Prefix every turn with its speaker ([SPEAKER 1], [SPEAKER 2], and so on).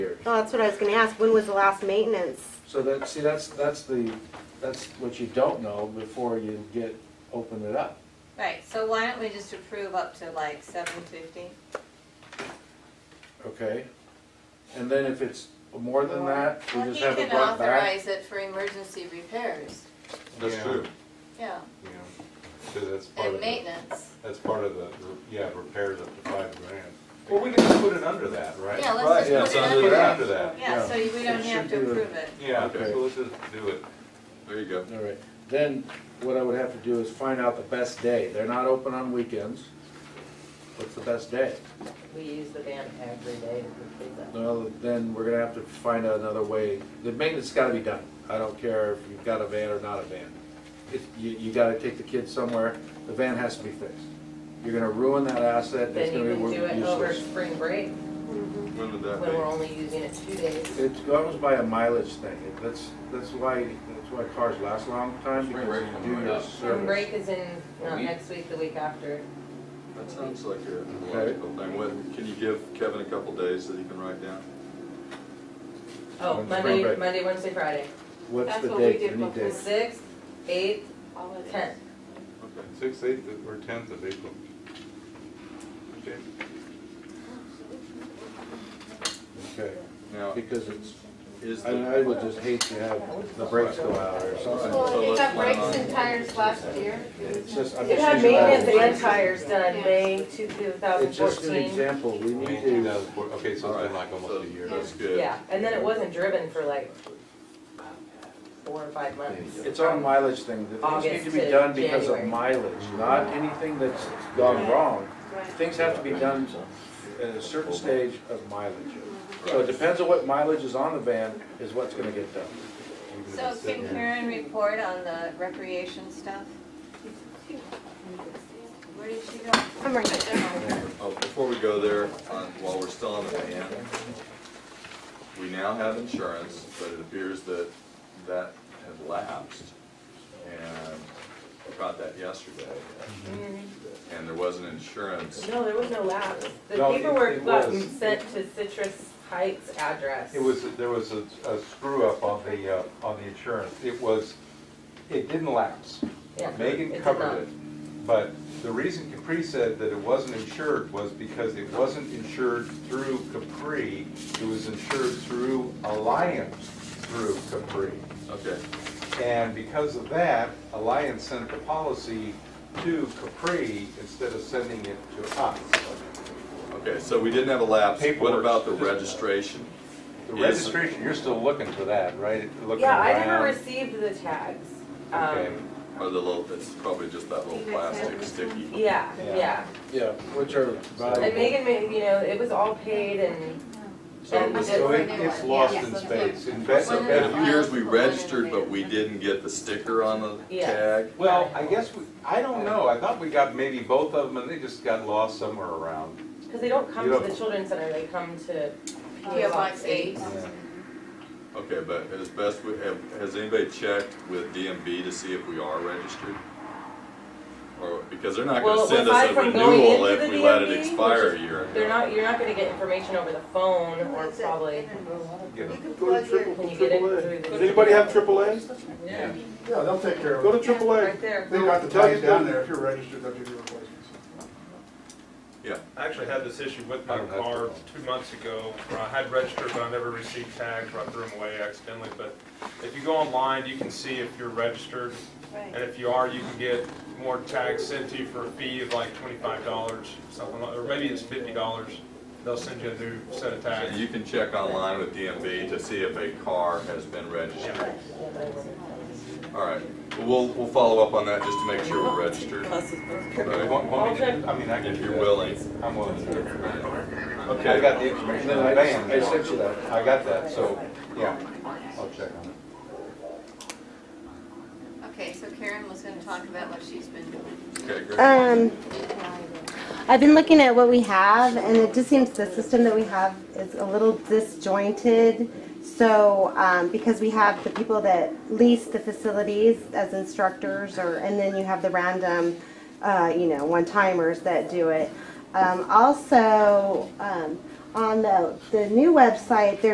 [SPEAKER 1] years.
[SPEAKER 2] Oh, that's what I was gonna ask, when was the last maintenance?
[SPEAKER 1] So that, see, that's, that's the, that's what you don't know before you get, open it up.
[SPEAKER 3] Right, so why don't we just approve up to like seven fifty?
[SPEAKER 1] Okay? And then if it's more than that, we just have it
[SPEAKER 3] Well,
[SPEAKER 1] brought
[SPEAKER 3] he can
[SPEAKER 1] back.
[SPEAKER 3] authorize it for emergency repairs,
[SPEAKER 4] That's
[SPEAKER 5] Yeah.
[SPEAKER 4] true.
[SPEAKER 3] yeah,
[SPEAKER 4] Yeah, because that's part
[SPEAKER 1] Oh,
[SPEAKER 3] and
[SPEAKER 4] of the,
[SPEAKER 3] maintenance.
[SPEAKER 4] that's part of the, yeah, repairs up to five grand. Well, we can just put it under that, right?
[SPEAKER 3] Yeah,
[SPEAKER 1] Right,
[SPEAKER 3] let's
[SPEAKER 1] yeah,
[SPEAKER 3] just
[SPEAKER 4] it's
[SPEAKER 3] put
[SPEAKER 4] under
[SPEAKER 3] it
[SPEAKER 4] that.
[SPEAKER 3] under that. Yeah,
[SPEAKER 1] Yeah.
[SPEAKER 3] so we don't
[SPEAKER 1] It
[SPEAKER 3] have
[SPEAKER 1] should
[SPEAKER 3] to
[SPEAKER 1] be the-
[SPEAKER 3] approve it.
[SPEAKER 4] Yeah,
[SPEAKER 5] Okay.
[SPEAKER 4] so let's just do it.
[SPEAKER 5] There you go.
[SPEAKER 1] All right, then what I would have to do is find out the best day. They're not open on weekends. What's the best day?
[SPEAKER 6] We use the van every day to complete that.
[SPEAKER 1] Well, then we're gonna have to find out another way. The maintenance gotta be done. I don't care if you've got a van or not a van. If, you, you gotta take the kids somewhere, the van has to be fixed. You're gonna ruin that asset, it's
[SPEAKER 6] Then
[SPEAKER 1] gonna
[SPEAKER 6] you
[SPEAKER 1] be
[SPEAKER 6] can
[SPEAKER 1] wor-
[SPEAKER 6] do it over
[SPEAKER 1] useless.
[SPEAKER 6] spring break,
[SPEAKER 5] When would
[SPEAKER 6] when
[SPEAKER 5] that
[SPEAKER 6] we're
[SPEAKER 5] be?
[SPEAKER 6] only using it two days.
[SPEAKER 1] It goes by a mileage thing. It- That's, that's why, that's why cars last a long time,
[SPEAKER 5] Spring
[SPEAKER 1] because
[SPEAKER 5] break
[SPEAKER 1] you do
[SPEAKER 5] and
[SPEAKER 1] your
[SPEAKER 5] up.
[SPEAKER 6] Spring
[SPEAKER 1] service.
[SPEAKER 6] break is in,
[SPEAKER 5] A
[SPEAKER 6] not
[SPEAKER 5] week.
[SPEAKER 6] next week, the week after.
[SPEAKER 5] That sounds like a
[SPEAKER 1] Okay.
[SPEAKER 5] logical thing. When, can you give Kevin a couple days that he can write down?
[SPEAKER 6] Oh,
[SPEAKER 1] When's spring
[SPEAKER 6] Monday,
[SPEAKER 1] break?
[SPEAKER 6] Monday, Wednesday, Friday.
[SPEAKER 1] What's
[SPEAKER 3] That's
[SPEAKER 1] the
[SPEAKER 3] what we
[SPEAKER 1] date,
[SPEAKER 3] did
[SPEAKER 1] any
[SPEAKER 3] before.
[SPEAKER 1] date?
[SPEAKER 6] Sixth, eighth, tenth.
[SPEAKER 5] Okay.
[SPEAKER 4] Sixth, eighth, or tenth of April. Okay.
[SPEAKER 1] Okay,
[SPEAKER 5] Now,
[SPEAKER 1] because it's,
[SPEAKER 5] is
[SPEAKER 1] I
[SPEAKER 5] the,
[SPEAKER 1] I would just hate to have the brakes go out or something.
[SPEAKER 5] Well,
[SPEAKER 7] Well,
[SPEAKER 5] it
[SPEAKER 7] it
[SPEAKER 5] got
[SPEAKER 7] got
[SPEAKER 5] breaks
[SPEAKER 7] brakes
[SPEAKER 5] and
[SPEAKER 7] and tires last year.
[SPEAKER 1] It's just, I'm
[SPEAKER 6] It
[SPEAKER 1] just
[SPEAKER 6] had
[SPEAKER 1] using that
[SPEAKER 6] maintenance
[SPEAKER 1] as-
[SPEAKER 6] and tires done
[SPEAKER 7] Yeah.
[SPEAKER 6] May two
[SPEAKER 1] It's
[SPEAKER 6] thousand
[SPEAKER 1] just an
[SPEAKER 6] fourteen.
[SPEAKER 1] example, we
[SPEAKER 4] May
[SPEAKER 1] need
[SPEAKER 4] two
[SPEAKER 1] to,
[SPEAKER 4] thousand four, okay, so it's
[SPEAKER 5] alright,
[SPEAKER 4] been like
[SPEAKER 5] so
[SPEAKER 4] almost a year.
[SPEAKER 5] that's good.
[SPEAKER 6] Yeah, and then it wasn't driven for like four or five months.
[SPEAKER 1] it's our mileage thing, that things need
[SPEAKER 6] August
[SPEAKER 1] to be
[SPEAKER 6] to
[SPEAKER 1] done because of
[SPEAKER 6] January.
[SPEAKER 1] mileage, not anything that's gone wrong. Things have to be done at a certain stage of mileage. So it depends on what mileage is on the van, is what's gonna get done.
[SPEAKER 4] Even if
[SPEAKER 3] So
[SPEAKER 4] it's
[SPEAKER 3] can
[SPEAKER 4] seven.
[SPEAKER 3] Karen report on the recreation stuff? Where did she go?
[SPEAKER 2] I'm right there.
[SPEAKER 5] Oh, before we go there, on, while we're still on the van, we now have insurance, but it appears that that had lapsed. And I got that yesterday, and there was an insurance.
[SPEAKER 6] Mm-hmm. No, there was no lapse. The
[SPEAKER 1] No, it-
[SPEAKER 6] paperwork
[SPEAKER 4] it
[SPEAKER 6] got
[SPEAKER 4] was.
[SPEAKER 6] sent to Citrus Heights address.
[SPEAKER 4] It was, there was a, a screw up on the, uh, on the insurance. It was, it didn't lapse.
[SPEAKER 6] Yeah, it
[SPEAKER 4] Megan
[SPEAKER 6] did not.
[SPEAKER 4] covered it, but the reason Capri said that it wasn't insured was because it wasn't insured through Capri, it was insured through Alliance through Capri.
[SPEAKER 5] Okay,
[SPEAKER 4] And because of that, Alliance sent the policy to Capri instead of sending it to us.
[SPEAKER 5] okay, so we didn't have a lapse. What
[SPEAKER 4] Paperwork.
[SPEAKER 5] about the registration?
[SPEAKER 4] The
[SPEAKER 5] Is-
[SPEAKER 4] registration, you're still looking for that, right? Looking
[SPEAKER 6] Yeah, I never
[SPEAKER 4] around.
[SPEAKER 6] received the tags.
[SPEAKER 4] Okay.
[SPEAKER 6] Um,
[SPEAKER 5] Or the little, it's probably just that little plastic sticky.
[SPEAKER 6] yeah,
[SPEAKER 4] Yeah.
[SPEAKER 6] yeah.
[SPEAKER 1] Yeah, which are
[SPEAKER 6] And
[SPEAKER 1] valuable.
[SPEAKER 6] Megan made, you know, it was all paid and,
[SPEAKER 5] So it was,
[SPEAKER 4] So it- it's lost
[SPEAKER 7] Yeah.
[SPEAKER 4] in space. In fact,
[SPEAKER 5] so it appears we registered, but we didn't get the sticker on the
[SPEAKER 6] Yes.
[SPEAKER 5] tag.
[SPEAKER 4] Well, I guess we, I don't know, I thought we got maybe both of them, and they just got lost somewhere around.
[SPEAKER 6] because they don't come
[SPEAKER 4] You
[SPEAKER 6] to
[SPEAKER 4] don't-
[SPEAKER 6] the children's center, they come to
[SPEAKER 7] Yeah,
[SPEAKER 6] PO Box
[SPEAKER 7] Box
[SPEAKER 6] eight.
[SPEAKER 7] eight.
[SPEAKER 5] Okay, but as best we have, has anybody checked with DMV to see if we are registered? Or, because they're not gonna
[SPEAKER 6] Well,
[SPEAKER 5] send us
[SPEAKER 6] aside
[SPEAKER 5] a
[SPEAKER 6] from going
[SPEAKER 5] renewal
[SPEAKER 6] into
[SPEAKER 5] if
[SPEAKER 6] the
[SPEAKER 5] we let it
[SPEAKER 6] DMV, which
[SPEAKER 5] expire a
[SPEAKER 6] is-
[SPEAKER 5] year
[SPEAKER 6] They're
[SPEAKER 5] ago.
[SPEAKER 6] not, you're not gonna get information over the phone or probably,
[SPEAKER 4] You know,
[SPEAKER 7] plug your.
[SPEAKER 6] can you get it through the.
[SPEAKER 8] Does anybody have AAA?
[SPEAKER 4] Yeah.
[SPEAKER 9] Yeah, they'll take care of
[SPEAKER 8] Go
[SPEAKER 9] it.
[SPEAKER 8] to AAA.
[SPEAKER 6] Right there.
[SPEAKER 8] They've got the tags down there. If you're registered, they'll give you replacements.
[SPEAKER 10] I actually had this issue with
[SPEAKER 4] I
[SPEAKER 10] my
[SPEAKER 4] don't have
[SPEAKER 10] car
[SPEAKER 4] to.
[SPEAKER 10] two months ago. where I had registered, but I never received tags, or I threw them away accidentally. But if you go online, you can see if you're registered. And if you are, you can get more tags sent to you for a fee of like twenty-five dollars, something like, or maybe it's fifty dollars. They'll send you a new set of
[SPEAKER 5] So
[SPEAKER 10] tags.
[SPEAKER 5] You can check online with DMV to see if a car has been registered. All right, we'll, we'll follow up on that just to make sure we're registered.
[SPEAKER 4] You
[SPEAKER 5] Right?
[SPEAKER 4] want- want me to- I mean, I can
[SPEAKER 5] If
[SPEAKER 4] do
[SPEAKER 5] you're
[SPEAKER 4] that.
[SPEAKER 5] willing.
[SPEAKER 4] I'm willing. I
[SPEAKER 5] Okay,
[SPEAKER 4] got the information
[SPEAKER 1] Then
[SPEAKER 4] on the
[SPEAKER 1] I, I
[SPEAKER 4] van,
[SPEAKER 1] sent you that.
[SPEAKER 4] I got that, so, yeah, I'll check on it.
[SPEAKER 3] Okay, so Karen was gonna talk about what she's been doing.
[SPEAKER 5] okay, great.
[SPEAKER 2] Um, I've been looking at what we have, and it just seems the system that we have is a little disjointed. So, um, because we have the people that lease the facilities as instructors, or and then you have the random, uh, you know, one timers that do it. Um, also, um, on the the new website, there.